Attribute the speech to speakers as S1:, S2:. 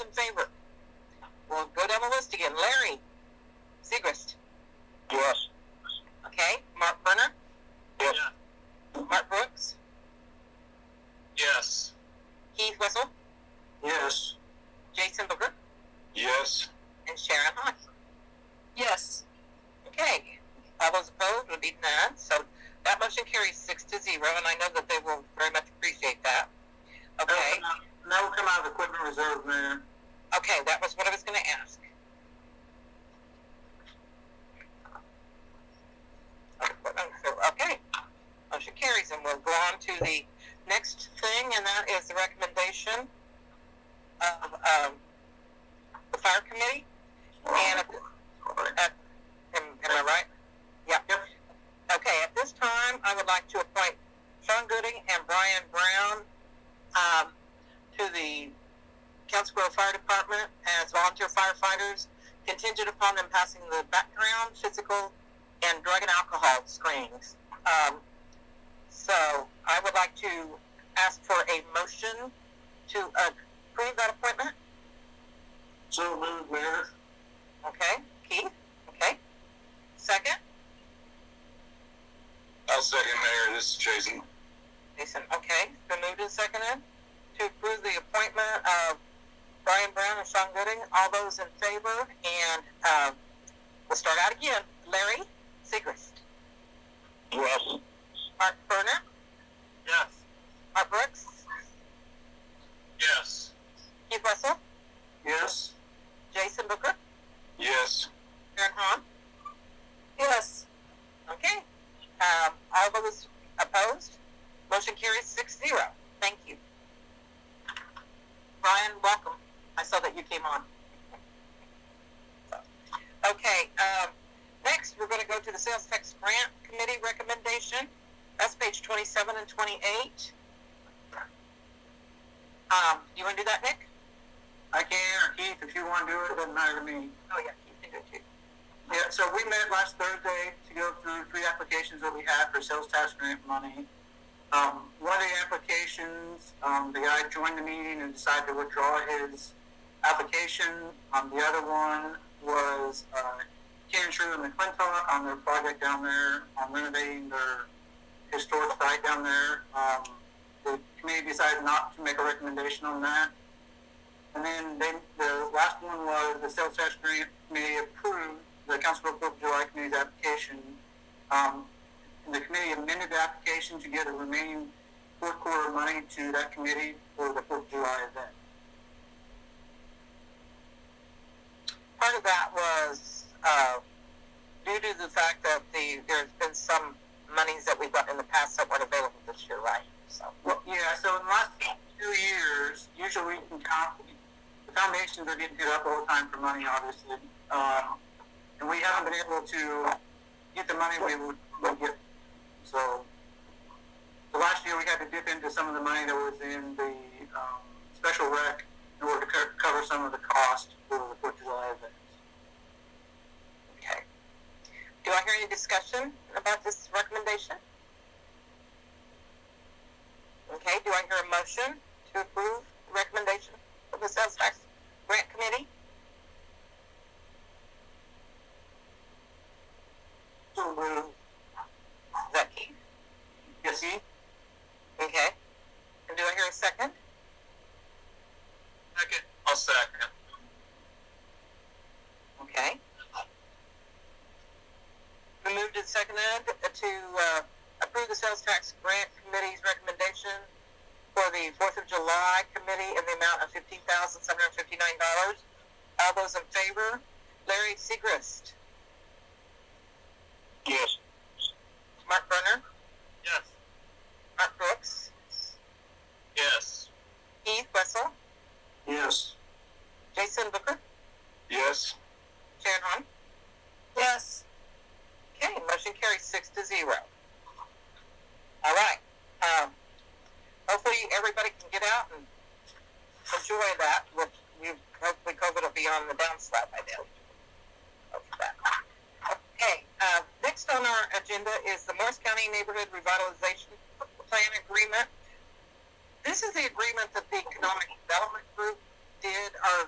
S1: in favor? We'll go down the list again. Larry Segrist.
S2: Yes.
S1: Okay. Mark Berner.
S2: Yes.
S1: Mark Brooks.
S2: Yes.
S1: Keith Whistle.
S2: Yes.
S1: Jason Booker.
S2: Yes.
S1: And Sharon Hodge. Yes. Okay. All those opposed would be none. So that motion carries six to zero, and I know that they will very much appreciate that. Okay.
S2: Now we'll come out of equipment reserve, Mayor.
S1: Okay, that was what I was going to ask. Okay, motion carries, and we'll go on to the next thing, and that is the recommendation of um, the fire committee. And at, at, am, am I right? Yeah.
S2: Yep.
S1: Okay, at this time, I would like to appoint Sean Gooding and Brian Brown um, to the Council Grove Fire Department as volunteer firefighters, contingent upon them passing the background, physical, and drug and alcohol screenings. Um, so I would like to ask for a motion to approve that appointment.
S2: So moved, Mayor.
S1: Okay, Keith? Okay. Second?
S2: I'll second, Mayor. This is Jason.
S1: Jason, okay. It's been moved and seconded to approve the appointment of Brian Brown and Sean Gooding. All those in favor, and uh, we'll start out again. Larry Segrist,
S2: Yes.
S1: Mark Berner,
S2: Yes.
S1: Mark Brooks,
S2: Yes.
S1: Keith Russell,
S2: Yes.
S1: Jason Booker,
S2: Yes.
S1: Aaron Hahn. Yes. Okay. Um, all those opposed? Motion carries six zero. Thank you. Brian, welcome. I saw that you came on. Okay, um, next we're going to go to the sales tax grant committee recommendation. That's page twenty-seven and twenty-eight. Um, you want to do that, Nick?
S2: I can, or Keith, if you want to do it, it doesn't matter to me.
S1: Oh, yeah, you can do it too.
S2: Yeah, so we met last Thursday to go through three applications that we had for sales tax grant money. Um, one of the applications, um, the guy joined the meeting and decided to withdraw his application. Um, the other one was, uh, Ken Shrew and McClintock on their project down there, on renovating their historic site down there. Um, the committee decided not to make a recommendation on that. And then they, the last one was the sales tax grant committee approved the Council of Fourth of July committee's application. Um, and the committee amended the application to get the remaining fourth quarter money to that committee for the Fourth of July event.
S1: part of that was uh, due to the fact that the there's been some monies that we got in the past that weren't available this year, right? So
S2: Well, yeah, so in the last two years, usually we can count, the foundations are getting hit up all the time for money, obviously. Um, and we haven't been able to get the money we would would get. So, so last year we had to dip into some of the money that was in the um, special rec in order to co- cover some of the cost for the Fourth of July event.
S1: okay. Do I hear any discussion about this recommendation? Okay. Do I hear a motion to approve the recommendation of the sales tax grant committee?
S2: So, uh,
S1: Is that Keith?
S2: yes, Keith?
S1: Okay. And do I hear a second?
S2: Second. I'll second.
S1: Okay. We moved and seconded to uh, approve the sales tax grant committee's recommendation for the Fourth of July committee in the amount of fifteen thousand seven hundred fifty-nine dollars. All those in favor? Larry Segrist,
S2: Yes.
S1: Mark Berner,
S2: Yes.
S1: Mark Brooks,
S2: Yes.
S1: Keith Wessel,
S2: Yes.
S1: Jason Booker,
S2: Yes.
S1: Sharon Hahn.
S2: Yes.
S1: Okay, motion carries six to zero. All right. Um, hopefully everybody can get out and enjoy that. With you, hopefully COVID will be on the downslide by then. Hope for that. Okay. Uh, next on our agenda is the Morris County Neighborhood Revitalization Plan Agreement. This is the agreement that the Economic Development Group did, or